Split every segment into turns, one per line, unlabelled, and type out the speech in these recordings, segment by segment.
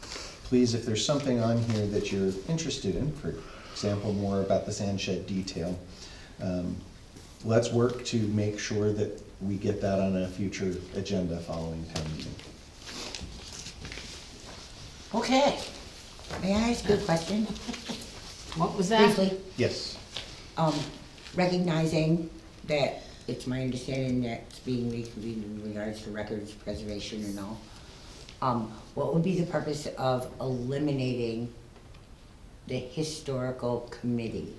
please, if there's something on here that you're interested in, for example, more about the sand shed detail, um, let's work to make sure that we get that on a future agenda following town meeting.
Okay. May I ask you a question?
What was that?
Briefly,
Yes.
um, recognizing that it's my understanding that it's being reconvened in regards to records preservation and all. Um, what would be the purpose of eliminating the historical committee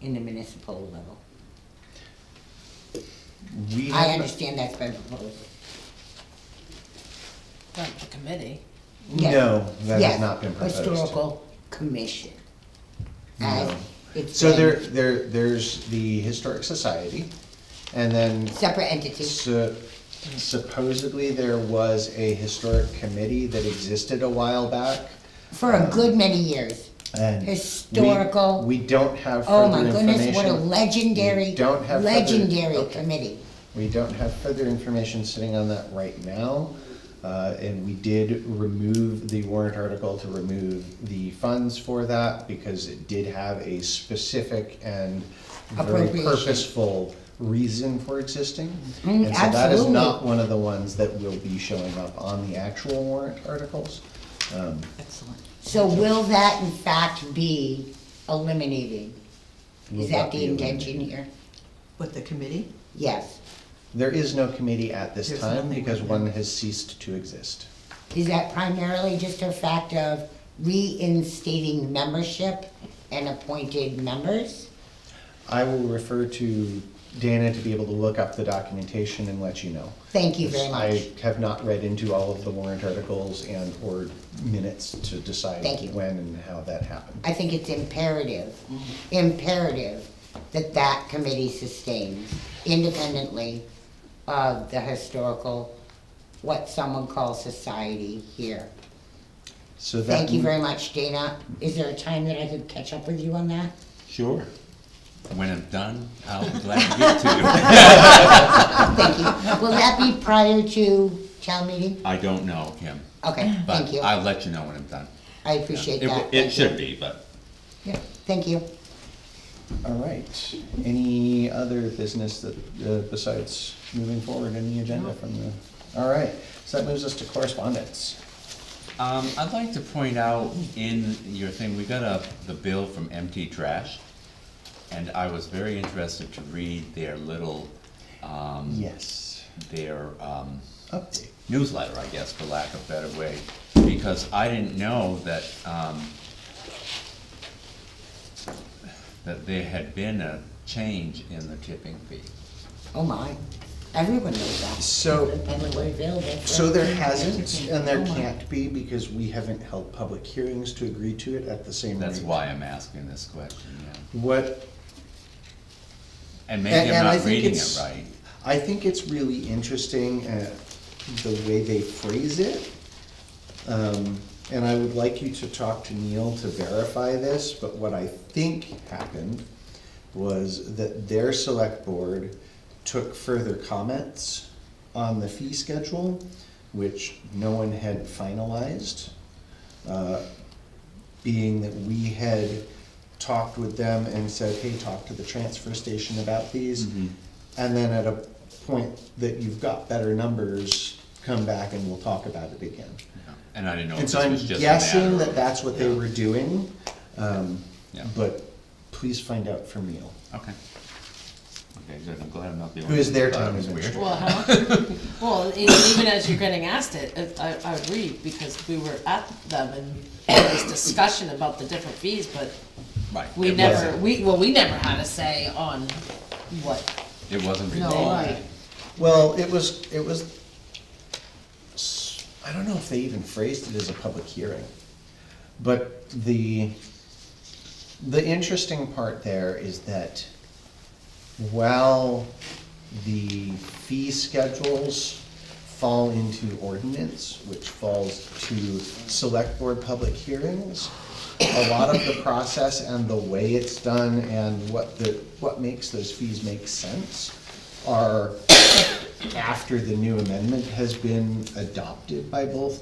in the municipal level?
We
I
have-
understand that's been proposed.
Not the committee.
Yeah.
No, that
Yeah,
has not been proposed.
Historical commission. As
No.
it's
So there,
been
there, there's the Historic Society, and then
separate entities.
su- supposedly there was a historic committee that existed a while back.
For a good many years.
and we-
Historical.
We don't have
Oh
further
my goodness, what a
information.
legendary,
We don't have further-
legendary
okay.
committee.
We don't have further information sitting on that right now. Uh, and we did remove the warrant article to remove the funds for that because it did have a specific and very
Appropriation.
purposeful reason for existing.
Mm,
And so that is not
absolutely.
one of the ones that will be showing up on the actual warrant articles. Um,
Excellent.
So will that in fact be eliminated?
Will
Is
not
that
be
the intention
eliminated.
here?
With the committee?
Yes.
There is no committee at this
There's
time
nothing
because
right
one
now.
has ceased to exist.
Is that primarily just a fact of reinstating membership and appointed members?
I will refer to Dana to be able to look up the documentation and let you know.
Thank you very much.
I have not read into all of the warrant articles and or minutes to decide
Thank you.
when and how that happened.
I think it's imperative, imperative that that committee sustains independently of the historical, what someone calls society here.
So that.
Thank you very much, Dana. Is there a time that I could catch up with you on that?
Sure. When I'm done, I'll be glad to get to
Oh, Thank you. Will that be prior to town meeting?
you. I don't know, Kim,
Okay,
but
thank you.
I'll let you know when I'm done.
I appreciate
It-
that.
It should be, but
Yeah, Thank you.
All right. Any other business that, uh, besides moving forward in the agenda from the, all right. So that moves us to correspondence.
um, I'd like to point out in your thing, we got a, the bill from Empty Trash, and I was very interested to read their little, um,
Yes.
their um,
Update.
newsletter, I guess, for lack of better way, because I didn't know that, um, that there had been a change in the tipping fee.
Oh my, everyone knows that.
So
Publicly available.
So there hasn't, and
Oh,
there can't be, because we haven't held public hearings to agree to it at the same rate.
That's why I'm asking this question, yeah.
What,
And
and,
maybe I'm
and I
not
think
reading
it's.
it right.
I think it's really interesting, uh, the way they phrase it. Um, and I would like you to talk to Neil to verify this, but what I think happened was that their select board took further comments on the fee schedule, which no one had finalized. Uh, being that we had talked with them and said, hey, talk to the transfer station about these.
Mm-hmm.
And then at a point that you've got better numbers, come back and we'll talk about it again.
And I didn't know if
And
this
so I'm
was just a matter
guessing that
of-
that's what they
yeah,
were doing, um,
Yeah.
but please find out from Neil.
Okay. Okay, good, I'm glad I'm not the
Who
only.
is
one
their
who thought it
town
was weird.
administrator?
Well, how, well, e- even as you're getting asked it, it- I, I read, because we were at them and there was discussion about the different fees, but
Right.
we
it
never,
wasn't-
we, well, we never had a say on what.
It wasn't
No,
resolved.
right.
Well, it was, it was, s- I don't know if they even phrased it as a public hearing. But the, the interesting part there is that while the fee schedules fall into ordinance, which falls to select board public hearings, a lot of the process and the way it's done and what the, what makes those fees make sense are after the new amendment has been adopted by both